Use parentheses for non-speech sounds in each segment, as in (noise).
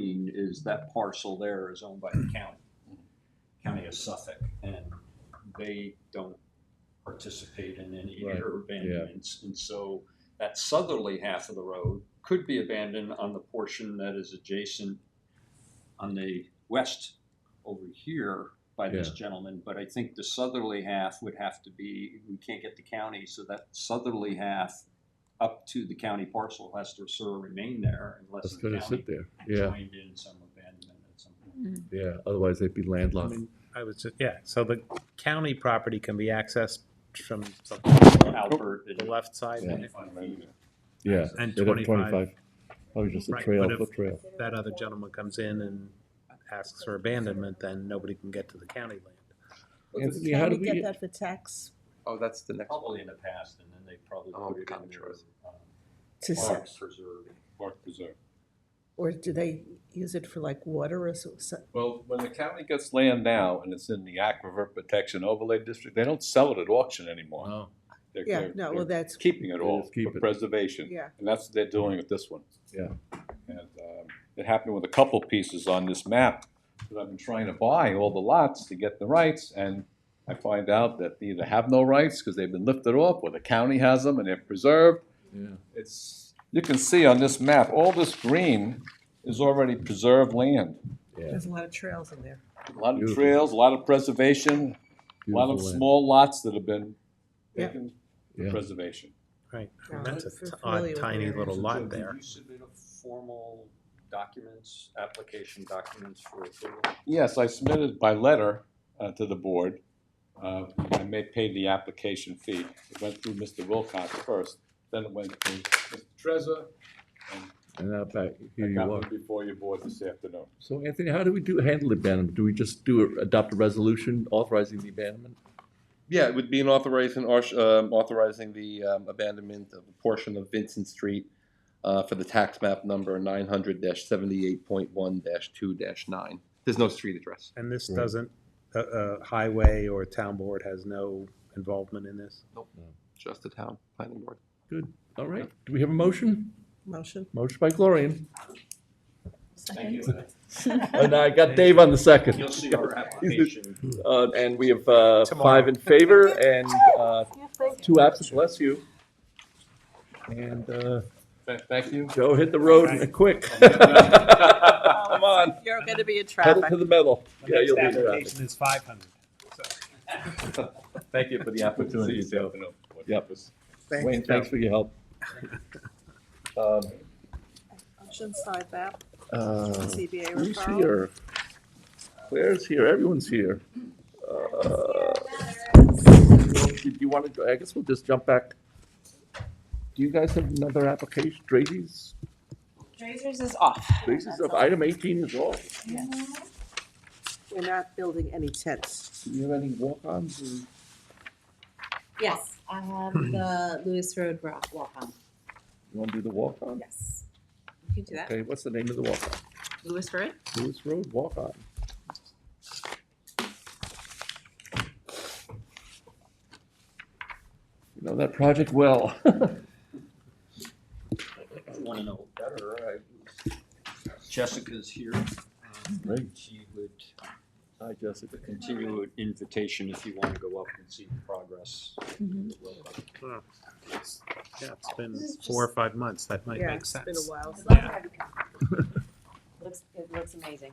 is that parcel there is owned by Mm-hmm. the county, county of Suffolk, and they don't participate in any Right, air abandonments. And so that southerly half of the road could be abandoned on the portion that is adjacent on the west over here by this Yeah. gentleman, but I think the southerly half would have to be, we can't get the county, so that southerly half up to the county parcel has to sort of remain there unless That's the gonna county sit there, yeah, joined in some abandonment at some point. yeah, otherwise they'd be I landlocked. mean, I was just, yeah, so the county property can be accessed from the Mm-hmm. Albert the and left side, Yeah. and Yeah. And they'd have 25. Probably just a Right, trail, but if- foot trail. if that other gentleman comes in and asks for abandonment, then nobody can get to the county land. Anthony, how Can we did we, get get- that for tax? Oh, that's the next. probably in the past, and then they probably Oh, put it in county their trust. um, to s- parks preserve. Park Preserve. Or do they use it for like water or so? so- Well, when the county gets land now and it's in the Aquifer Protection Overlay District, they don't sell it at auction anymore. wow, They're- Yeah, they're- no, well, they're that's, Keeping it They all just keep for it. preservation. yeah, And that's what they're doing with this one. Yeah. And um, it happened with a couple pieces on this map that I've been trying to buy all the lots to get the rights. And I find out that they either have no rights because they've been lifted off or the county has them and they're preserved. yeah, It's, you can see on this map, all this green is already preserved land. yeah. there's a lot of trails in there. A lot of Beautiful. trails, a lot of preservation, a lot of Beautiful land. small lots that have been Yeah. taken for Yeah. preservation. Right, Yeah, that's if a you're t- familiar odd with tiny areas. little So, Joe, lot did there. you submit a formal documents, application documents for approval? Yes, I submitted by letter uh, to the board. Uh, I may pay the application fee. It went through Mr. Wilcox first, then it went to Mr. Trezor, and And now back, here I you got are. one before your board this (laughs) afternoon. So Anthony, how do we do, handle abandonment? Do we just do, a- adopt a resolution authorizing the abandonment? Yeah, it would be an authorizing, or, um, authorizing the, um, abandonment of a portion of Vincent Street, uh, for the tax map number nine hundred seventy-eight point one two nine. There's no street address. And this Right. doesn't, uh, uh, highway or town board has no involvement in this? Just the town planning board. Good, all right, do we have a motion? Motion? Motion by Gloria. Thank you. (laughs) (laughs) And I got Dave on the second. You'll see our application. Uh, and we have, uh, five in favor and, uh, two absent, bless you. And, uh, Th- Thank you. Joe hit the road and quick. (laughs) Come on, You're gonna be in pedal traffic. to the metal. Yeah, you'll be in traffic. is five hundred. Thank you for the See you this afternoon. Yep. Wayne, thanks for your help. (laughs) Um, Motion side map, uh, CBA Who's referral. here? Claire's here, everyone's here. Uh, Did you want to, I guess we'll just jump back. Do you guys have another application, Drazy's, Drazers is off. Drazy's of item eighteen is off. We're not building any tents. Do you have any walk-ons or? Yes, (clears throat) I have the Lewis Road wa- walk on. You want to do the walk-on? Yes. You can do that. Okay, what's the name of the walk-on? Lewis Road? Lewis Road walk-on. You know that project well. (laughs) want to know better, I- Jessica's here. Um, Great. She would Hi, Jessica. continue an invitation if you want to go up and see the progress. Mm-hmm. Yeah, it's been four or five months, that might Yeah, make it's been a sense. while. I'd love to have you come. Looks, it looks amazing.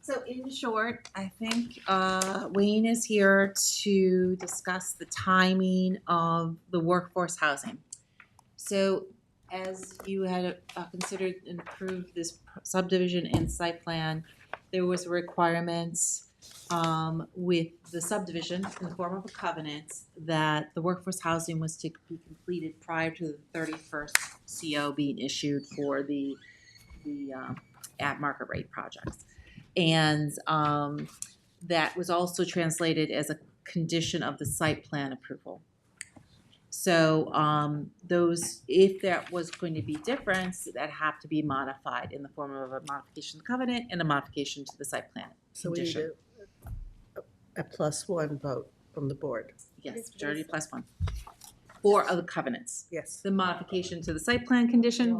So in short, I think uh, Wayne is here to discuss the timing of the workforce housing. So as you had uh, considered and approved this subdivision and site plan, there was requirements um, with the subdivision in the form of a covenant that the workforce housing was to be completed prior to the thirty-first CO being issued for the, the um, at market rate projects. And um, that was also translated as a condition of the site plan approval. So um, those, if that was going to be different, that have to be modified in the form of a modification to the covenant and a modification to the site plan. So we need a, Condition. a plus one vote from the board. Yes, majority plus one. Four of the covenants. Yes. The modification to the site plan condition,